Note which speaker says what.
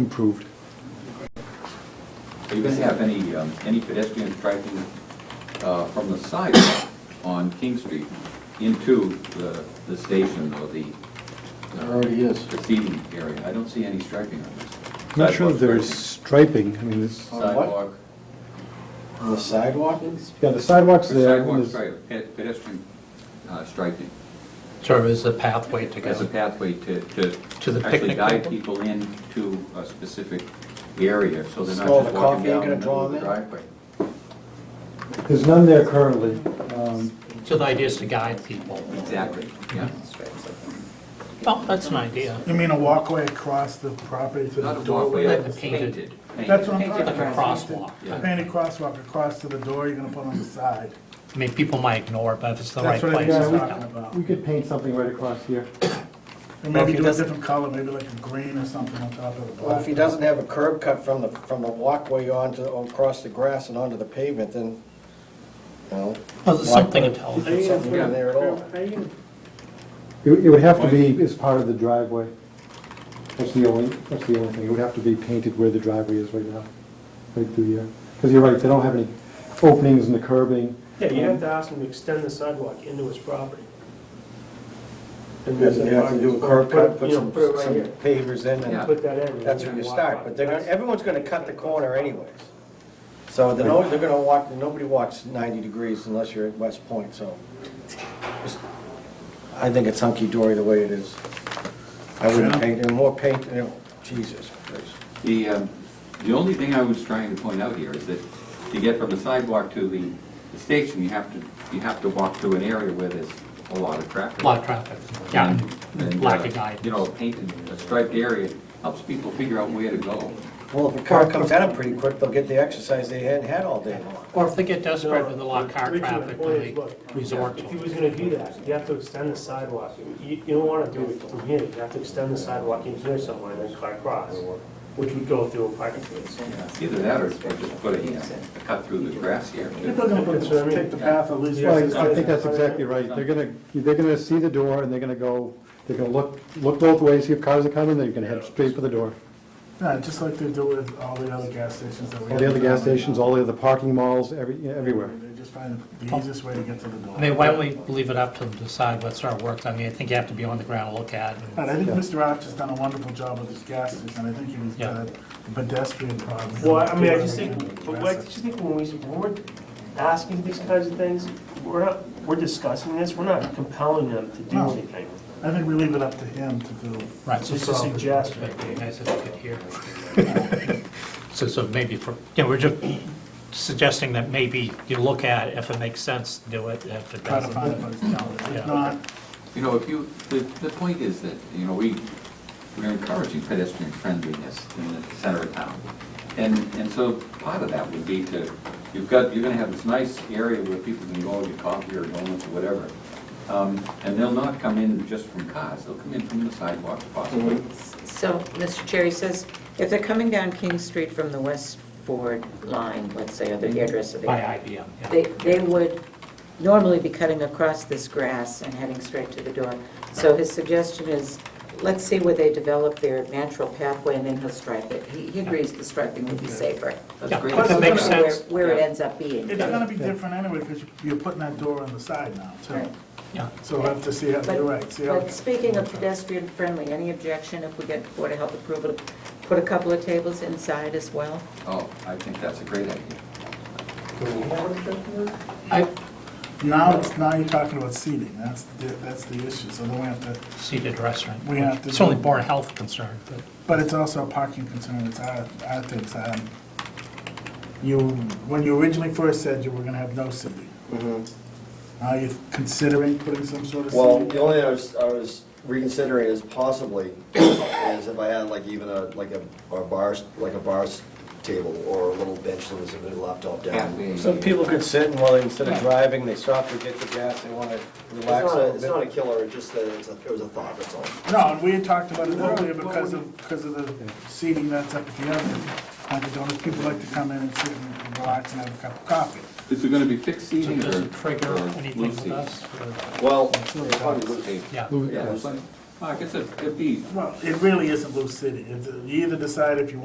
Speaker 1: improved.
Speaker 2: Are you going to have any, um, any pedestrians driving uh, from the sidewalk on King Street into the, the station or the
Speaker 3: There already is.
Speaker 2: the seating area? I don't see any striping on this.
Speaker 1: I'm not sure if
Speaker 2: Sidewalk
Speaker 1: there's
Speaker 2: curtain,
Speaker 1: striping, I mean, it's,
Speaker 3: On what?
Speaker 2: Sidewalk,
Speaker 3: On the sidewalk?
Speaker 1: yeah, the sidewalk's there.
Speaker 2: sidewalk
Speaker 1: and there's-
Speaker 2: stripe, pe- pedestrian uh, striping.
Speaker 4: Sort of as a pathway to
Speaker 2: As a
Speaker 4: go.
Speaker 2: pathway to, to.
Speaker 4: To the
Speaker 2: Actually
Speaker 4: picnic
Speaker 2: guide
Speaker 4: table?
Speaker 2: people into a specific area, so they're not
Speaker 3: Smell
Speaker 2: just
Speaker 3: the
Speaker 2: walking
Speaker 3: coffee
Speaker 2: down the
Speaker 3: gonna
Speaker 2: middle
Speaker 3: draw
Speaker 2: of the
Speaker 3: them in?
Speaker 2: driveway.
Speaker 1: There's none there currently. Um,
Speaker 4: So the idea is to guide people.
Speaker 2: Exactly, yeah.
Speaker 4: Well, Oh, that's an idea.
Speaker 5: You mean a walkway across the property to the
Speaker 2: Not a
Speaker 5: door?
Speaker 2: walkway,
Speaker 4: Like
Speaker 2: it's
Speaker 4: painted.
Speaker 2: painted.
Speaker 5: That's what I'm
Speaker 4: Like
Speaker 5: talking
Speaker 4: a
Speaker 5: about.
Speaker 4: crosswalk.
Speaker 2: Yeah.
Speaker 5: A painted crosswalk across to the door you're gonna put on the side.
Speaker 4: I mean, people might ignore it, but if it's the right
Speaker 5: That's what I
Speaker 4: place.
Speaker 5: think
Speaker 1: Yeah,
Speaker 5: I'm
Speaker 1: we-
Speaker 4: it's
Speaker 5: talking
Speaker 4: not.
Speaker 5: about.
Speaker 1: We could paint something right across here.
Speaker 5: And
Speaker 4: Well, if
Speaker 5: maybe
Speaker 4: he
Speaker 5: do a
Speaker 4: doesn't-
Speaker 5: different color, maybe like a green or something on top of the
Speaker 3: Well, if
Speaker 5: black.
Speaker 3: he doesn't have a curb cut from the, from the walkway onto, across the grass and onto the pavement, then, you know.
Speaker 4: Well, there's something
Speaker 3: put
Speaker 4: intelligent.
Speaker 3: Something in there at all.
Speaker 1: It it would have to be as part of the driveway. That's the only, that's the only thing. It would have to be painted where the driveway is right now, right through here. Because you're right, they don't have any openings in the curbing.
Speaker 6: Yeah, you have to ask him to extend the sidewalk into his property. And
Speaker 3: Does it have to do a curb cut, put
Speaker 6: You know,
Speaker 3: some,
Speaker 6: put it right
Speaker 3: some
Speaker 6: here.
Speaker 3: pavers in
Speaker 2: Yeah.
Speaker 3: and
Speaker 6: Put that in.
Speaker 3: that's where you start. But they're gonna, everyone's gonna cut the corner anyways. So they're, no- they're gonna walk, nobody walks ninety degrees unless you're at West Point, so. just- I think it's hunky-dory the way it is. I wouldn't
Speaker 5: Yeah.
Speaker 3: paint, and more paint, you know, Jesus Christ.
Speaker 2: The, um, the only thing I was trying to point out here is that to get from the sidewalk to the the station, you have to, you have to walk through an area where there's a lot of traffic.
Speaker 4: A lot of traffic. Yeah,
Speaker 2: And,
Speaker 4: lack
Speaker 2: uh,
Speaker 4: of guidance.
Speaker 2: You know, painted, a striped area helps people figure out where to go.
Speaker 3: Well, if a car comes at them pretty quick, they'll get the exercise they hadn't had all day long.
Speaker 4: Or if they get desperate with a lot of car
Speaker 6: Richard, my
Speaker 4: traffic,
Speaker 6: point
Speaker 4: then
Speaker 6: is,
Speaker 4: they
Speaker 6: look,
Speaker 4: resort
Speaker 6: If he
Speaker 4: to it.
Speaker 6: was gonna do that, you have to extend the sidewalk. You, you don't wanna do it from here, you have to extend the sidewalk in here somewhere and then cut across, which would go through a parking space.
Speaker 2: It's Either that or it's just put a, uh, a cut through the grass here.
Speaker 5: People are gonna put-
Speaker 6: That's what I mean.
Speaker 5: take the path at least.
Speaker 6: Yeah.
Speaker 1: Well, I think that's exactly right. They're gonna, they're gonna see the door and they're gonna go, they're gonna look, look both ways, see if cars are coming, they're gonna head straight for the door.
Speaker 5: Yeah, just like they do with all the other gas stations that we have.
Speaker 1: All the other gas stations, all the other parking malls, every, everywhere.
Speaker 5: They just find the easiest way to get to the door.
Speaker 4: I mean, why don't we leave it up to them to decide what's our work? I mean, I think you have to be on the ground, look at it.
Speaker 5: And I think Mr. Arch done a wonderful job with his gas station. I think he was
Speaker 4: Yeah.
Speaker 5: good, the pedestrian problem.
Speaker 6: Well, I mean, I just think, but what, I just think when we, when we're asking these kinds of things, we're not, we're discussing this, we're not compelling them to do
Speaker 5: No.
Speaker 6: anything.
Speaker 5: I think we leave it up to him to do.
Speaker 4: Right, so
Speaker 6: Just a suggestion.
Speaker 4: It'd be nice if you could hear. So, so maybe for, you know, we're just suggesting that maybe you look at it, if it makes sense, do it, if it
Speaker 5: Try to find
Speaker 4: doesn't.
Speaker 5: it, but
Speaker 4: Yeah.
Speaker 5: if not,
Speaker 2: You know, if you, the, the point is that, you know, we, we're encouraging pedestrian friendliness in the center of town. And, and so part of that would be to, you've got, you're gonna have this nice area where people can go and get coffee or donuts or whatever. Um, and they'll not come in just from cars, they'll come in from the sidewalk possibly.
Speaker 4: Mm-hmm.
Speaker 7: So, Mr. Cherry says, if they're coming down King Street from the West Ford line, let's say, or the hairdresser,
Speaker 4: Mm-hmm. By
Speaker 7: they,
Speaker 4: IBM,
Speaker 7: they
Speaker 4: yeah.
Speaker 7: they would normally be cutting across this grass and heading straight to the door. So his suggestion is, let's see where they develop their natural pathway, and then he'll stripe it. He he agrees the striping would be safer.
Speaker 2: That's
Speaker 4: Yeah,
Speaker 2: great.
Speaker 4: if it makes
Speaker 7: Where-
Speaker 4: sense,
Speaker 7: Where it ends up being.
Speaker 5: it's gonna be different anyway, because you're putting that door on the side now, too.
Speaker 7: Right.
Speaker 4: yeah.
Speaker 5: So we'll have to see how, you're right,
Speaker 7: But,
Speaker 5: see how.
Speaker 7: but speaking of pedestrian friendly, any objection if we get Board of Health approval, to put a couple of tables inside as well?
Speaker 2: Oh, I think that's a great idea.
Speaker 4: I,
Speaker 5: Now, it's, now you're talking about seating, that's, the that's the issue, so then we have to,
Speaker 4: seated restaurant.
Speaker 5: We have to
Speaker 4: It's only
Speaker 5: do-
Speaker 4: board health concern, but
Speaker 5: but it's also a parking concern, it's our, our things, um, you, when you originally first said you were gonna have no seating,
Speaker 7: Mm-hmm.
Speaker 5: now you're considering putting some sort of
Speaker 8: Well, the
Speaker 5: seating?
Speaker 8: only thing I was, I was reconsidering is possibly, is if I had like even a, like a, a bar, like a bar s- table or a little bench that was a bit laptop down.
Speaker 3: Some people could sit and while, instead of driving, they stop to get the gas, they wanna
Speaker 8: It's
Speaker 3: relax
Speaker 8: not,
Speaker 3: a
Speaker 8: a- it's
Speaker 3: little
Speaker 8: not a
Speaker 3: bit.
Speaker 8: killer, it's just that it's a, it was a thought, that's all.
Speaker 5: No, and we had talked about it earlier because of, because of the seating that's up at the oven. Dunkin' Donuts, people like to come in and sit and relax and have a cup of coffee.
Speaker 2: Is it gonna be fixed
Speaker 4: so it
Speaker 2: seating or?
Speaker 4: doesn't trigger
Speaker 2: or
Speaker 4: anything
Speaker 2: loose
Speaker 4: with
Speaker 2: seating?
Speaker 4: us. or-
Speaker 8: Well, it probably would-
Speaker 2: Hey,
Speaker 4: Yeah,
Speaker 2: Yeah,
Speaker 1: Lou-
Speaker 2: it's like- Mark, it's a, it'd be
Speaker 5: Well, it really is a blue city. It's- You either decide if you